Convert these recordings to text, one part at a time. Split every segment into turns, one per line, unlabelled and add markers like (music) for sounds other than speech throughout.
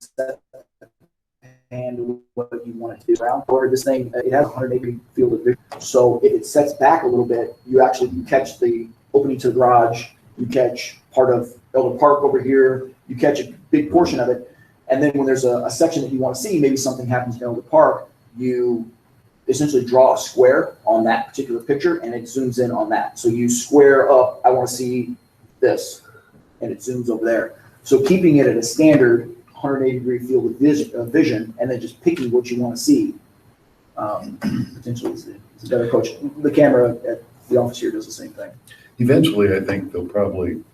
set and what you want to do around. Or this thing, it has a hundred acre field of vision. So if it sets back a little bit, you actually, you catch the opening to the garage, you catch part of Elder Park over here, you catch a big portion of it. And then when there's a, a section that you want to see, maybe something happens in Elder Park, you essentially draw a square on that particular picture and it zooms in on that. So you square up, I want to see this, and it zooms over there. So keeping it at a standard 180 degree field of vision, of vision and then just picking what you want to see um, (clears throat) potentially is the- is a better approach. The camera at the office here does the same thing.
Eventually, I think they'll probably, you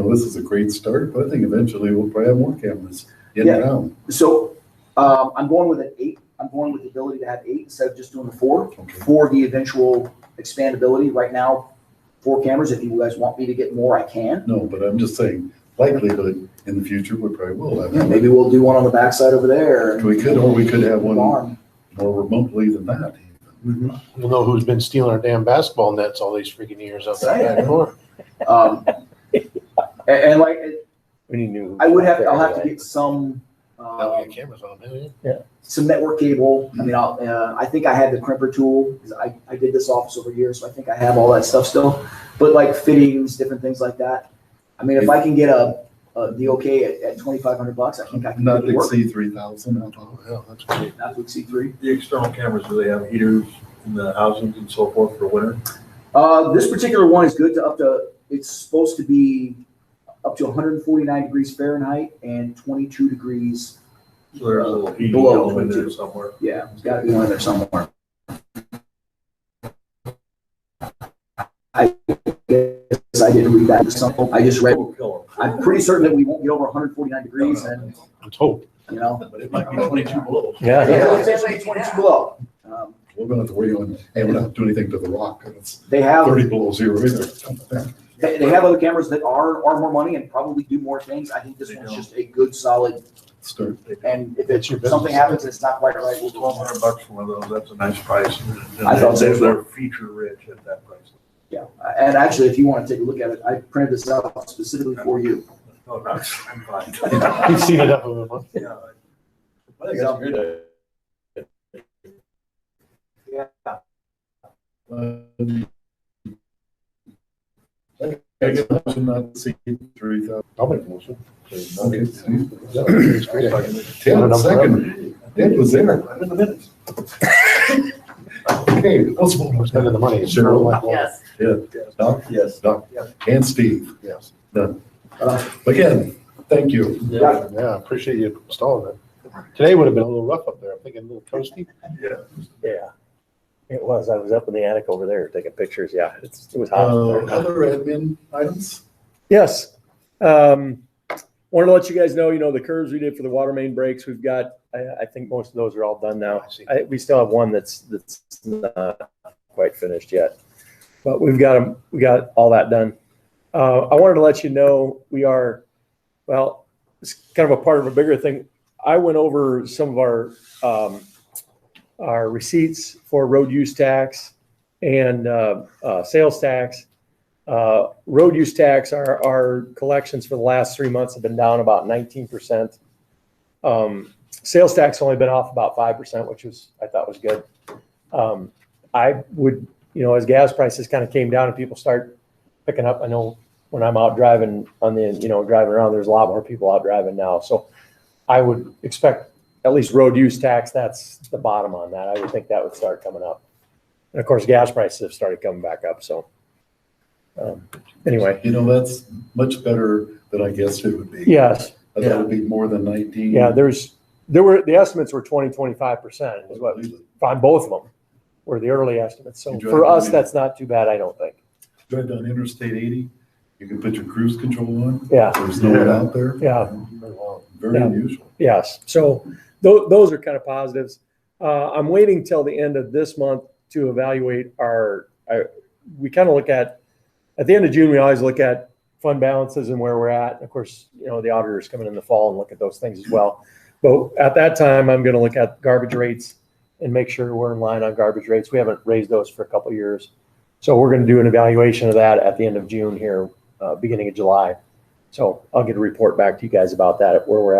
know, this is a great start, but I think eventually we'll probably have more cameras in
Yeah.
town.
So um, I'm going with an eight. I'm going with the ability to have eight instead of just doing the four
Okay.
for the eventual expandability. Right now, four cameras. If you guys want me to get more, I can.
No, but I'm just saying likelihood in the future, we probably will have.
Yeah,
one.
maybe we'll do one on the backside over there. and
We could, or we could have one Mm-hmm. more
barn.
remotely than that.
Mhm.
We'll know who's been stealing our damn basketball nets all these freaking years out there. back door.
Um, and, and like
We need new.
I would have. I'll have to get some.
Now we
Um,
got cameras on, man.
some network cable. I mean, I'll, uh, I think I had the crimper tool. 'cause I, I did this office over here, so I think I have all that stuff still. But like fittings, different things like that. I mean, if I can get a, a the okay at, at twenty five hundred bucks, I think I can
Not
make it
to
work.
exceed three thousand.
Oh, yeah, that's great.
Not to exceed three.
The external cameras, do they have heaters in the housings and so forth for winter?
Uh, this particular one is good to up to. It's supposed to be up to one hundred and forty nine degrees Fahrenheit and twenty two degrees.
So there's a little heating
Below
element in there
twenty-two.
somewhere.
Yeah, it's got to be one there somewhere. I guess I didn't read that. or something. I just read.
It'll kill
I'm pretty certain that we won't get over 149 degrees, and
Let's hope.
you
(laughs)
know,
them. But it might be twenty-two below.
Yeah.
(laughs) it's actually 22 below. Um,
We're gonna have to wait on, and we're not have to do anything to the rock. It's
they have
thirty below zero either.
they, they have other cameras that are are more money and probably do more things. I think this
They
one's
don't.
just a good solid.
Start.
And if
That's
it's
your business.
something happens, and it's not quite right. We'll
Twelve
go on.
hundred bucks for one of those, that's a nice price.
I thought so.
They're- They're feature rich at that price.
Yeah, and actually, if you want to take a look at it, I printed this out specifically for you.
No, no, I'm Oh, fine. (laughs)
He's seen enough of them.
Yeah.
I think that's a good Yeah.
I guess I should not see three thousand.
I'll make a motion.
Okay.
Yeah, It's a great. idea.
Ted, second. Ted was there.
I'm in the minutes.
Okay, let's vote.
We're spending the money. It's
Sure.
sort of like, well,
Yes.
Doc? Yes. Doc?
Yes.
And Steve?
Yes.
Done. Again, thank you.
Yeah.
Yeah, I appreciate you installing it. Today would have been a little rough up there. I'm thinking a little toasty.
Yeah. It was. I was up in the attic over there taking pictures. Yeah, it's, it was hot. up
Uh,
there.
other admin items?
Yes. Um, wanted to let you guys know, you know, the curves we did for the water main breaks, we've got, I, I think most of those are all done now.
I see.
I, we still have one that's, that's not quite finished yet. But we've got 'em- we got all that done. Uh, I wanted to let you know, we are, well, it's kind of a part of a bigger thing. I went over some of our, um, our receipts for road use tax and, uh, uh, sales tax. Uh, road use tax, our, our collections for the last three months have been down about nineteen percent. Um, sales tax only been off about five percent, which was, I thought was good. Um, I would, you know, as gas prices kind of came down and people start picking up, I know when I'm out driving on the, you know, driving around, there's a lot more people out driving now, so I would expect at least road use tax, that's the bottom on that. I would think that would start coming up. And of course, gas prices have started coming back up, so. um, Anyway,
You know, that's much better than I guessed it would be.
yes,
I thought it'd be more than nineteen.
yeah, there's, there were, the estimates were 20, 25% is what, on both of them, were the early estimates. So
You drive
for us,
away.
that's not too bad, I don't think.
Drive down Interstate eighty, you can put your cruise control on,
Yeah,
there's no one out there.
yeah,
Very
Yeah.
unusual.
yes. So tho- those are kind of positives. Uh, I'm waiting till the end of this month to evaluate our, I, we kind of look at, at the end of June, we always look at fund balances and where we're at. Of course, you know, the auditor's coming in the fall and look at those things as well. But at that time, I'm going to look at garbage rates and make sure we're in line on garbage rates. We haven't raised those for a couple of years. So we're going to do an evaluation of that at the end of June here, uh, beginning of July. So I'll get a report back to you guys about that, where we're at